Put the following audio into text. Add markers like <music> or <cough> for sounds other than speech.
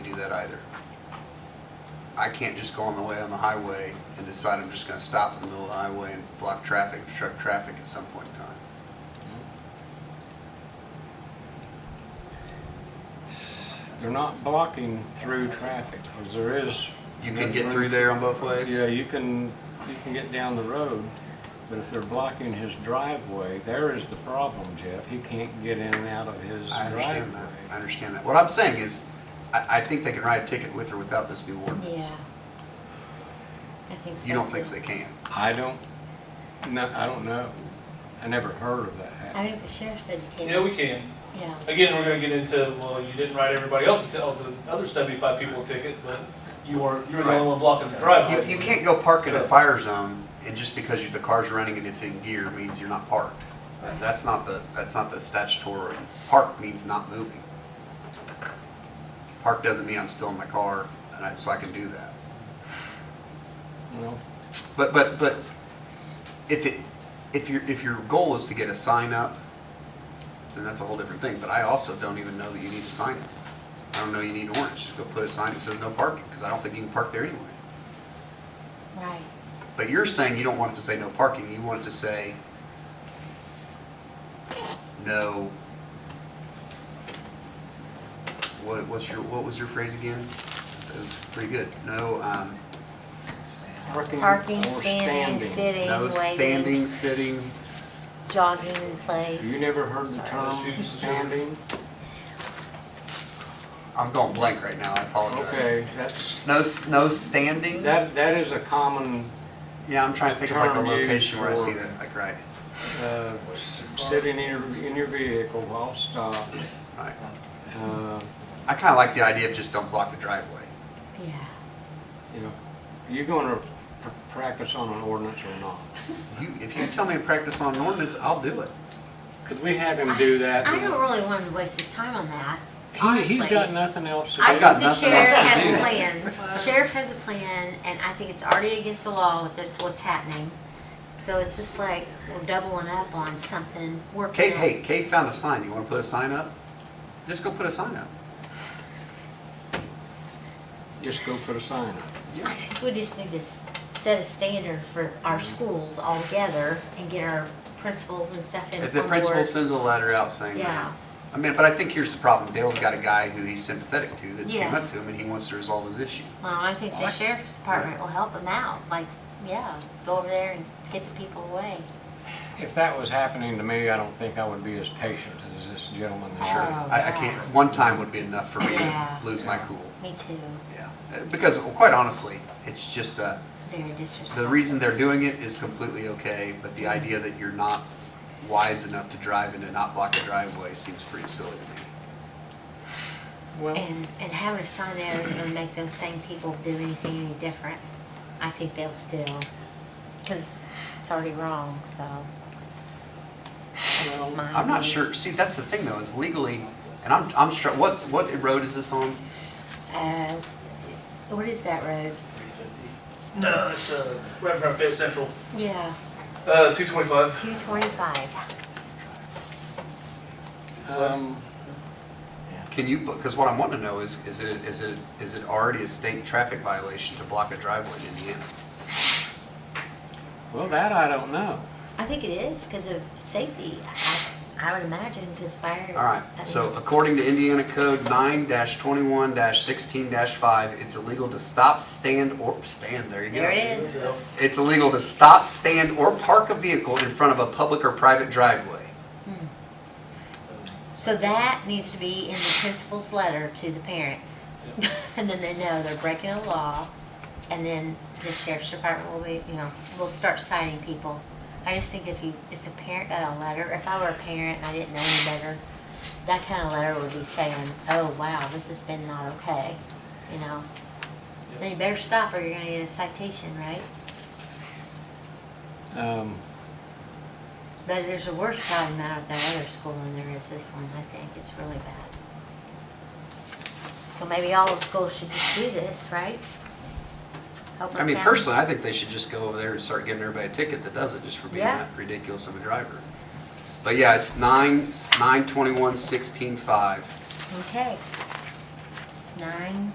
that either. I can't just go on the way on the highway and decide I'm just gonna stop in the middle of the highway and block traffic, obstruct traffic at some point in time. They're not blocking through traffic, 'cause there is. You can get through there on both ways? Yeah, you can, you can get down the road, but if they're blocking his driveway, there is the problem, Jeff. He can't get in and out of his I understand that, I driveway. understand that. What I'm saying is, I, I think they can write a ticket with or without this new ordinance. Yeah. I think so. You don't think too. they can? I don't, no, I don't know. I never heard of that I happening. think the sheriff said you Yeah, can't. we can. Yeah. Again, we're gonna get into, well, you didn't write everybody else a ticket, the other seventy-five people a ticket, but you were, you were the Right. only one blocking the You, you driveway. can't go park in a So- fire zone and just because you- the car's running and it's in gear means you're not parked. That's not the, that's not the statutory, park means not moving. Park doesn't mean I'm still in my car and I, so I can do that. You know, But, but, but if it, if your, if your goal is to get a sign up, then that's a whole different thing, but I also don't even know that you need a sign up. I don't know you need orange, just go put a sign that says no parking, because I don't think you can park there anyway. Right. But you're saying you don't want it to say no parking, you want it to say no. What, what's your, what was your phrase again? That was pretty good. No, um, Parking, or standing, sitting, no waiting, standing, sitting, jogging in place. You never heard the Sorry. term Shoot. standing? I'm going blank right now, I apologize. Okay, that's, No, s- no standing? that, that is a common Yeah, I'm trying to think of like a Term used location where I see for- that, like, right, uh, sitting in your, in your vehicle while stopped. right. uh, I kinda like the idea of just don't block the driveway. Yeah. You know, you're gonna pr- practice on an ordinance or not? You, if you tell me to practice on an ordinance, I'll do it. Could we have him do that? I don't really want him to waste his time on that. He- He's got nothing else to do. I got think the nothing else sheriff to has do. a <laughs> plan. Sheriff has a plan, and I think it's already against the law with this, what's happening. So it's just like, we're doubling up on something, working Kate, it. hey, Kate found a sign, you wanna put a sign up? Just go put a sign up. Just go put a sign up. I think we just need to s- set a standard for our schools altogether and get our principals and stuff in. If the on principal board. sends a letter out saying Yeah, that. I mean, but I think here's the problem. Dale's got a guy who he's sympathetic to that's came Yeah. up to him and he wants to resolve his issue. well, I think the sheriff's department will help them out, like, yeah, go over there and get the people away. If that was happening to me, I don't think I would be as patient as this gentleman. is. Sure. Oh, I, I yeah. can't, one time would be enough for me to Yeah. lose my cool. Me too, Yeah. Uh, Because well, quite honestly, it's just, uh, very the disrespectful. reason they're doing it is completely okay, but the Mm-hmm. idea that you're not wise enough to drive and to not block a driveway seems pretty silly to me. Well, And, and having a sign there isn't gonna make those same people do anything any different. I think they'll still, cause it's already wrong, so. That's well, my I'm not opinion. sure. See, that's the thing though, is legally, and I'm, I'm str- what, what road is this on? Uh, what is that road? No, it's, uh, right in front of Fayette Central, Yeah, uh, two twenty-five. two twenty-five. um, Can you, because what I want to know is, is it, is it, is it already a state traffic violation to block a driveway in Indiana? well, that I don't know. I think it is because of safety. I, I would imagine because fire. All right, I mean, so according to Indiana Code nine twenty-one sixteen five, it's illegal to stop, stand, or, stand, there you go. There it is. It's illegal to stop, stand, or park a vehicle in front of a public or private driveway. So that needs to be in the principal's letter to <laughs> the parents. And then they know they're breaking a law and then the sheriff's department will be, you know, will start citing people. I just think if you, if the parent got a letter, if I were a parent and I didn't know any better, that kind of letter would be saying, oh, wow, this has been not okay, you know? Then you better stop or you're gonna get a citation, right? Um, But there's a worse problem out at that other school than there is this one, I think, it's really bad. So maybe all of schools should just do this, right? I mean, personally, I think they should just go over there and start giving everybody a ticket that does it, just for being Yeah. that ridiculous of a driver. But yeah, it's nine, nine twenty-one sixteen five. Okay. Nine